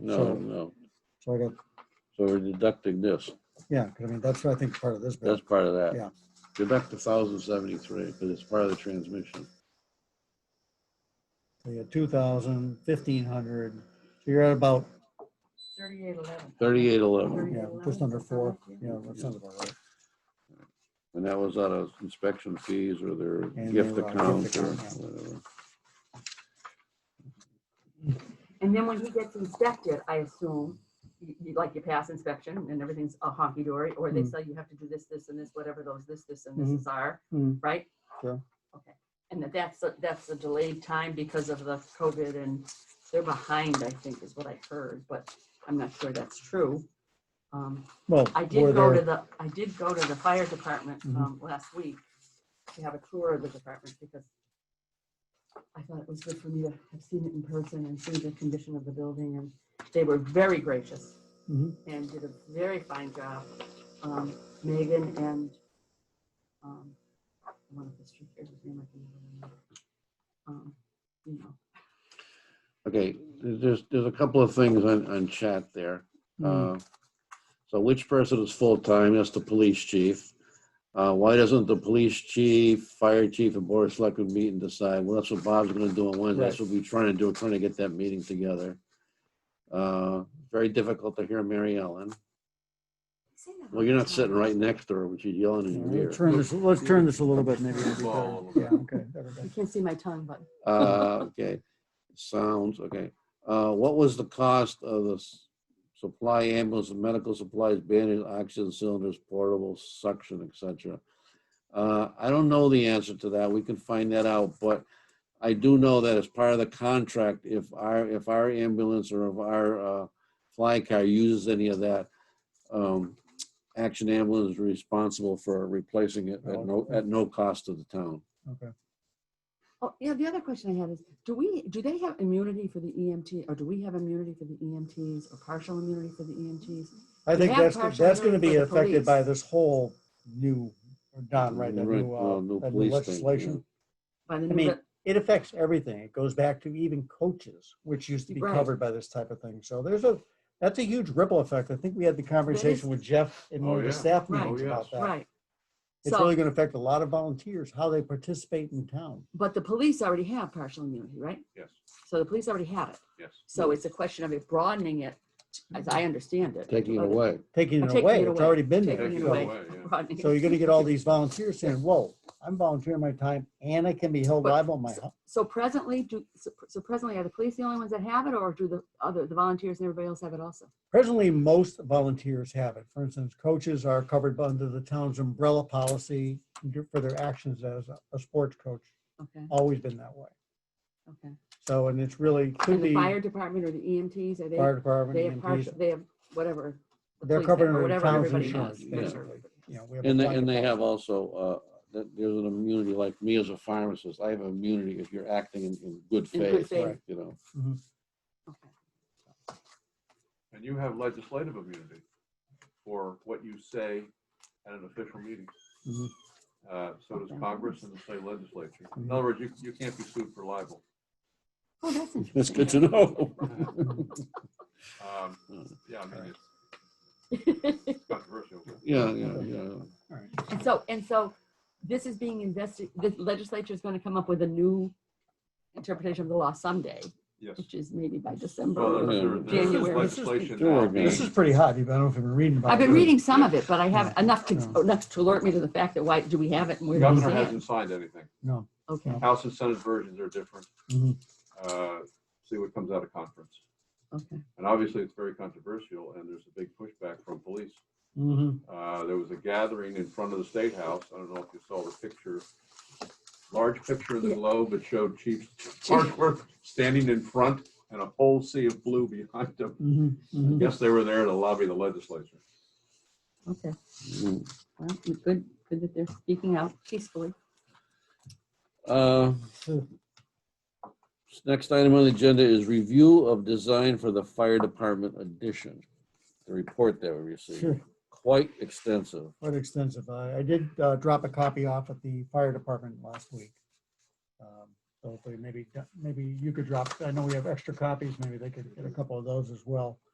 No, So- no. So I got, So we're deducting this. yeah, 'cause I mean, that's, I think, part of this bill. That's part of that. Yeah. Deduct the thousand seventy-three because it's part of the transmission. So you got 2,000, 1,500, so you're at about, Thirty-eight eleven. Thirty-eight eleven, yeah, just under four, yeah, that sounds about right. and that was out of inspection fees or their And gift their, uh, account gift or account, whatever. And then when he gets inspected, I assume, you, you- like you pass inspection and everything's a honky dory, or they Mm. say you have to do this, this and this, whatever those this, this and Mhm. this are, Mm, right? Yeah. Okay. And that that's, a- that's a delayed time because of the COVID and they're behind, I think is what I heard, but I'm not sure that's true. Um, Well, I were did go to there- the, I did go to the fire department Mhm. um, last week to have a tour of the department because I thought it was good for me to have seen it in person and see the condition of the building and they were very gracious Mhm. and did a very fine job. Um, Megan and um, one of the street, there's his name, I can never remember. Um, You know, Okay, there's, there's a couple of things on, on chat there. mm, Uh, So which person is full-time? That's the police chief. Uh, Why doesn't the police chief, fire chief, and board of selectmen meet and decide? Well, that's what Bob's gonna do on Wednesday. That's what we're trying to do, trying to get that meeting together. Uh, Very difficult to hear Mary Ellen. Well, you're not sitting right next to her when she's yelling in yeah, your Let's ear. turn this, let's turn this a little bit, maybe. it'll be Ball better. a little Yeah, okay. better, you better. can't see my tongue, but Uh, Okay, sounds, okay. Uh, What was the cost of the s- supply ambulance and medical supplies, bandage, oxygen cylinders, portable suction, et cetera? Uh, I don't know the answer to that. We can find that out, but I do know that as part of the contract, if our, if our ambulance or if our uh, fly car uses any of that, um, Action Ambulance is responsible for replacing it at no, at no cost to the town. Okay. Oh, yeah, the other question I had is, do we, do they have immunity for the E EMT, or do we have immunity for the EMTs, or partial immunity for the E EMTs? I think have that's, partial that's going to be immunity for the affected by police. this whole new, Don, right, that Right, new, uh, uh, new that new police thing, legislation. by the I new, mean, le- it affects everything. It goes back to even coaches, which used to be Right. covered by this type of thing. So there's a, that's a huge ripple effect. I think we had the conversation with Jeff in Oh, one of the yeah. staff Right. meetings Oh, about yes. that. right. uh, It's So- really going to affect a lot of volunteers, how they participate in town. But the police already have partial immunity, right? Yes, So the police already have it. yes. So it's a question of it broadening it, as I understand it. Taking it but away. taking Or it taking away. it It's away. already been there. Taking it Taking So- away, away. yeah. broadening it. So you're gonna get all these volunteers saying, whoa, I'm volunteering my time and I can be held But- liable, my, hu- So presently, do, so so presently, are the police the only ones that have it, or do the other, the volunteers and everybody else have it also? presently, most volunteers have it. For instance, coaches are covered by- under the town's umbrella policy for their actions as a- a sports coach. Okay, Always been that way. okay. So, and it's really, could And the be fire department or the EMTs, fire are they, they have department, partial, EMTs, they have whatever. the They're police covered have, under or the whatever town's everybody insurance, has, yeah. basically. whatever. You know, we have a And they, fire and they department. have also, uh, that there's an immunity, like me as a pharmacist, I have immunity if you're acting in, in good In good faith, faith, you know. okay. And you have legislative immunity for what you say at an official meeting. Mhm. Uh, So does Okay. Congress and the state legislature. In other words, you, you can't be sued for libel. Oh, that's interesting. That's good to know. Um, Mm. Yeah, I mean, it's controversial. but- Yeah, yeah, yeah. And so, and so this is being invested, the legislature is gonna come up with a new interpretation of the law someday, Yes. which is maybe by Well, uh, December. Yeah. there- This there is- is this is- legislation. Sure, now being- This is pretty hot. even I don't know if you've been reading about it. I've been but- reading some of it, but I haven't, uh, Yeah. enough to, oh, No. enough to alert me to the fact that why, do we have it and The where do we governor see it? hasn't signed anything. No. Okay, House and Senate versions are different. Mhm. Uh, See what comes out of conference. okay. And obviously, it's very controversial, and there's a big pushback from police. Mhm. Uh, There was a gathering in front of the State House. I don't know if you saw the picture, large picture in the Yeah. globe that showed Chief Farnsworth standing in front and a whole sea of blue behind him. Mhm. Mhm. Yes, they were there to lobby the legislature. Okay, Mm. well, good, good that they're speaking out peacefully. Uh, Next item on the agenda is review of design for the fire department addition. The report that we received, Sure. quite extensive. Quite extensive. I, I did uh, drop a copy off at the fire department last week. Um, So if we maybe, maybe you could drop, I know we have extra copies, maybe they could get a couple of those as well.